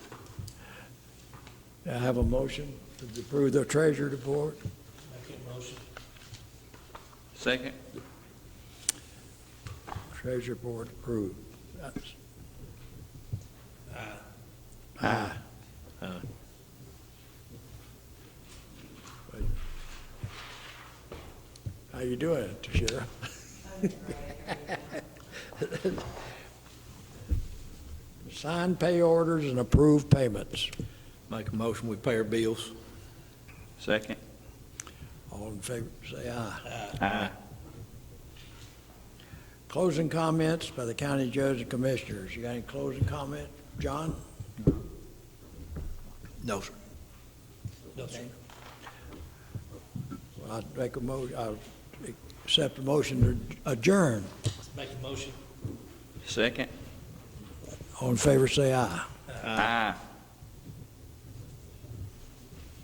May I have a motion to approve the treasurer report? Second? Treasurer board approved. That's- Aye. Aye. How you doing, Sheriff? Sign pay orders and approve payments. Make a motion, we pay our bills. Second? All in favor, say aye. Aye. Closing comments by the county judge and commissioners. You got any closing comment, John? No, sir. I'd make a mo, I'll accept a motion to adjourn. Make a motion. Second? All in favor, say aye. Aye.